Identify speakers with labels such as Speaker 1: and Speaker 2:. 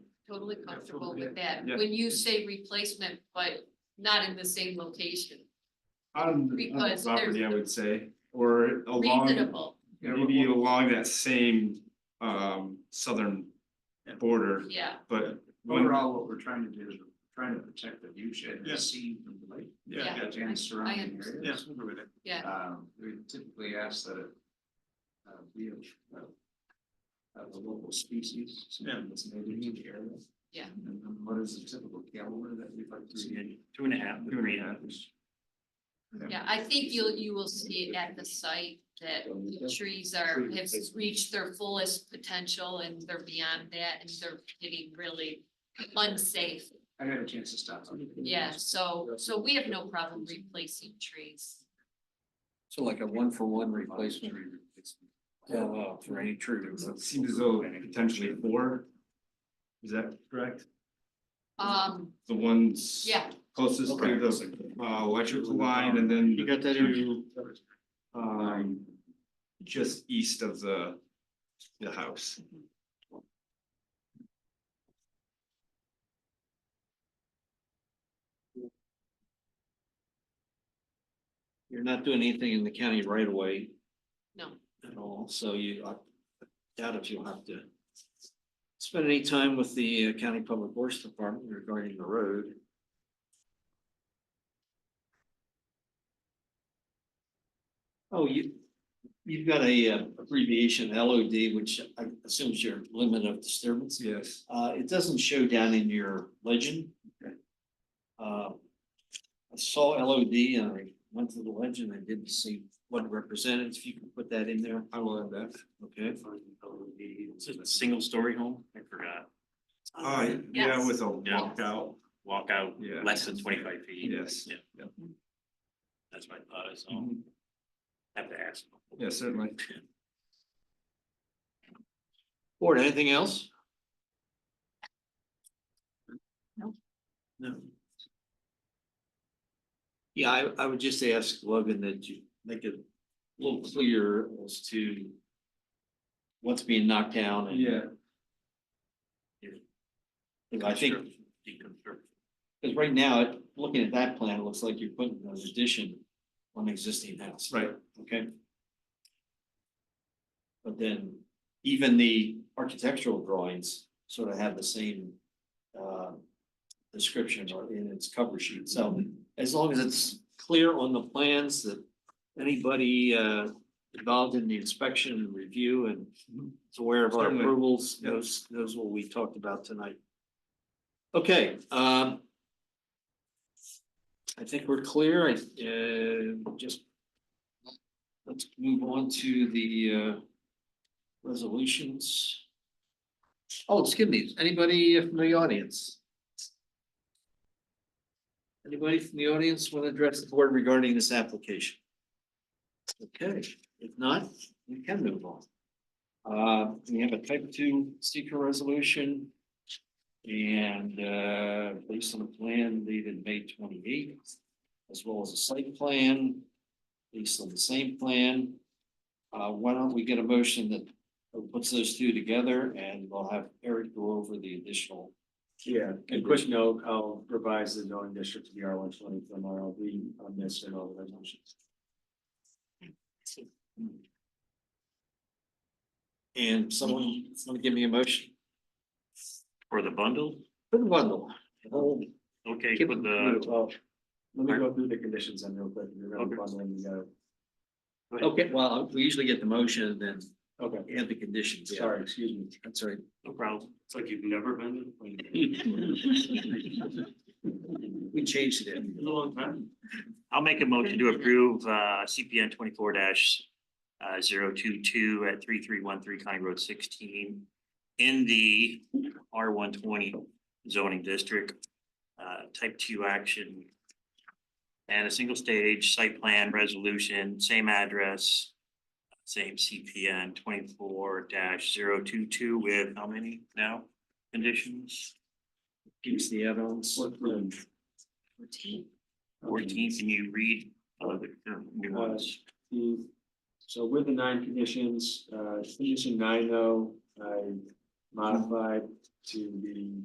Speaker 1: totally comfortable with that.
Speaker 2: Yeah.
Speaker 1: When you say replacement, but not in the same location,
Speaker 2: On the- on the
Speaker 1: Because
Speaker 2: property, I would say, or along,
Speaker 1: reasonable,
Speaker 2: maybe along that same um southern border,
Speaker 1: yeah.
Speaker 2: but. when-
Speaker 3: Overall, what we're trying to do is we're trying to protect the viewshed and
Speaker 2: Yeah.
Speaker 3: the scene from the lake.
Speaker 2: Yeah,
Speaker 1: Yeah.
Speaker 3: And the surrounding
Speaker 1: understand.
Speaker 3: areas.
Speaker 1: Yeah.
Speaker 3: Um, we typically ask that it uh, be of, uh, of the local species, something that's native to the area.
Speaker 1: Yeah.
Speaker 3: And then what is the typical caliber that we'd like to see?
Speaker 4: Two and a half,
Speaker 2: Two
Speaker 4: three
Speaker 2: and
Speaker 4: and
Speaker 2: a
Speaker 4: a half.
Speaker 2: half.
Speaker 1: Yeah, I think you'll, you will see it at the site that the trees are, have reached their fullest potential and they're beyond that and they're getting really unsafe.
Speaker 3: I had a chance to stop. on it.
Speaker 1: Yeah, so, so we have no problem replacing trees.
Speaker 4: So like a one for one replacement.
Speaker 2: Yeah.
Speaker 4: Uh, for any tree.
Speaker 2: It seems as though potentially four. Is that correct?
Speaker 1: Um,
Speaker 2: The ones.
Speaker 1: yeah,
Speaker 2: Closest to the uh electrical line and then.
Speaker 4: You got that,
Speaker 2: to, Um, just east of the, the house.
Speaker 4: You're not doing anything in the county right away
Speaker 1: no,
Speaker 4: at all, so you, I doubt if you'll have to. Spend any time with the uh, county public works department regarding the road. Oh, you, you've got a uh, abbreviation LOD, which I assume is your limit of disturbance.
Speaker 2: Yes.
Speaker 4: Uh, it doesn't show down in your legend.
Speaker 2: Okay.
Speaker 4: Uh, I saw LOD and I went to the legend. I didn't see what it represented. If you can put that in there,
Speaker 2: I will add that.
Speaker 4: okay? It's a single story home. I forgot.
Speaker 2: Uh, yeah,
Speaker 1: Yes.
Speaker 2: with a
Speaker 5: Yeah.
Speaker 2: walkout,
Speaker 5: walk out
Speaker 2: Yeah.
Speaker 5: less than twenty-five feet.
Speaker 2: yes.
Speaker 5: Yeah. That's my thought, so I'll
Speaker 2: Mhm.
Speaker 5: have to ask.
Speaker 2: Yeah, certainly.
Speaker 4: Board, anything else?
Speaker 1: No.
Speaker 4: No. Yeah, I, I would just ask Logan that you make it a little clearer as to what's being knocked down and.
Speaker 2: Yeah,
Speaker 4: I think, because right now, it- looking at that plan, it looks like you're putting an addition on an existing house.
Speaker 2: right.
Speaker 4: Okay. But then even the architectural drawings sort of have the same uh, description or in its cover sheet. So
Speaker 2: Mm-hmm.
Speaker 4: as long as it's clear on the plans that anybody uh, involved in the inspection and review and is aware of our
Speaker 2: Mm-hmm. Certainly.
Speaker 4: approvals,
Speaker 2: Yeah.
Speaker 4: knows, knows what we talked about tonight. Okay, um. I think we're clear. I, uh, just. Let's move on to the, uh, resolutions. Oh, excuse me, anybody from the audience? Anybody from the audience want to address the board regarding this application? Okay, if not, we can move on. Uh, we have a type two seeker resolution. And, uh, based on the plan dated May twenty eighth, as well as a site plan, based on the same plan. Uh, why don't we get a motion that puts those two together and we'll have Eric go over the additional.
Speaker 6: Yeah, and question, no, I'll revise the zoning district to the R one twenty from RLB on this and all the resolutions.
Speaker 4: And someone, someone give me a motion.
Speaker 5: For the bundle,
Speaker 4: Put the bundle. Oh,
Speaker 5: okay,
Speaker 4: Keep
Speaker 5: put
Speaker 6: No,
Speaker 5: the,
Speaker 6: Well, let me go through the conditions then real quick. You're gonna
Speaker 5: Okay.
Speaker 6: bundle them together.
Speaker 4: Okay, well, we usually get the motion and then
Speaker 6: Okay,
Speaker 4: add the conditions. yeah.
Speaker 6: sorry, excuse me.
Speaker 4: That's right.
Speaker 5: no problem, it's like you've never been.
Speaker 4: We changed it.
Speaker 5: It's a long time. I'll make a motion to approve uh CPN twenty-four dash uh 022 at three three one three County Road sixteen in the R one twenty zoning district, uh type two action. And a single stage site plan resolution, same address, same CPN twenty-four 22 with how many now conditions?
Speaker 4: Gives the add-ons.
Speaker 5: Fourteen, can you read uh, the the new ones?
Speaker 6: The- So with the nine conditions, uh, condition nine though, I modified oh, to the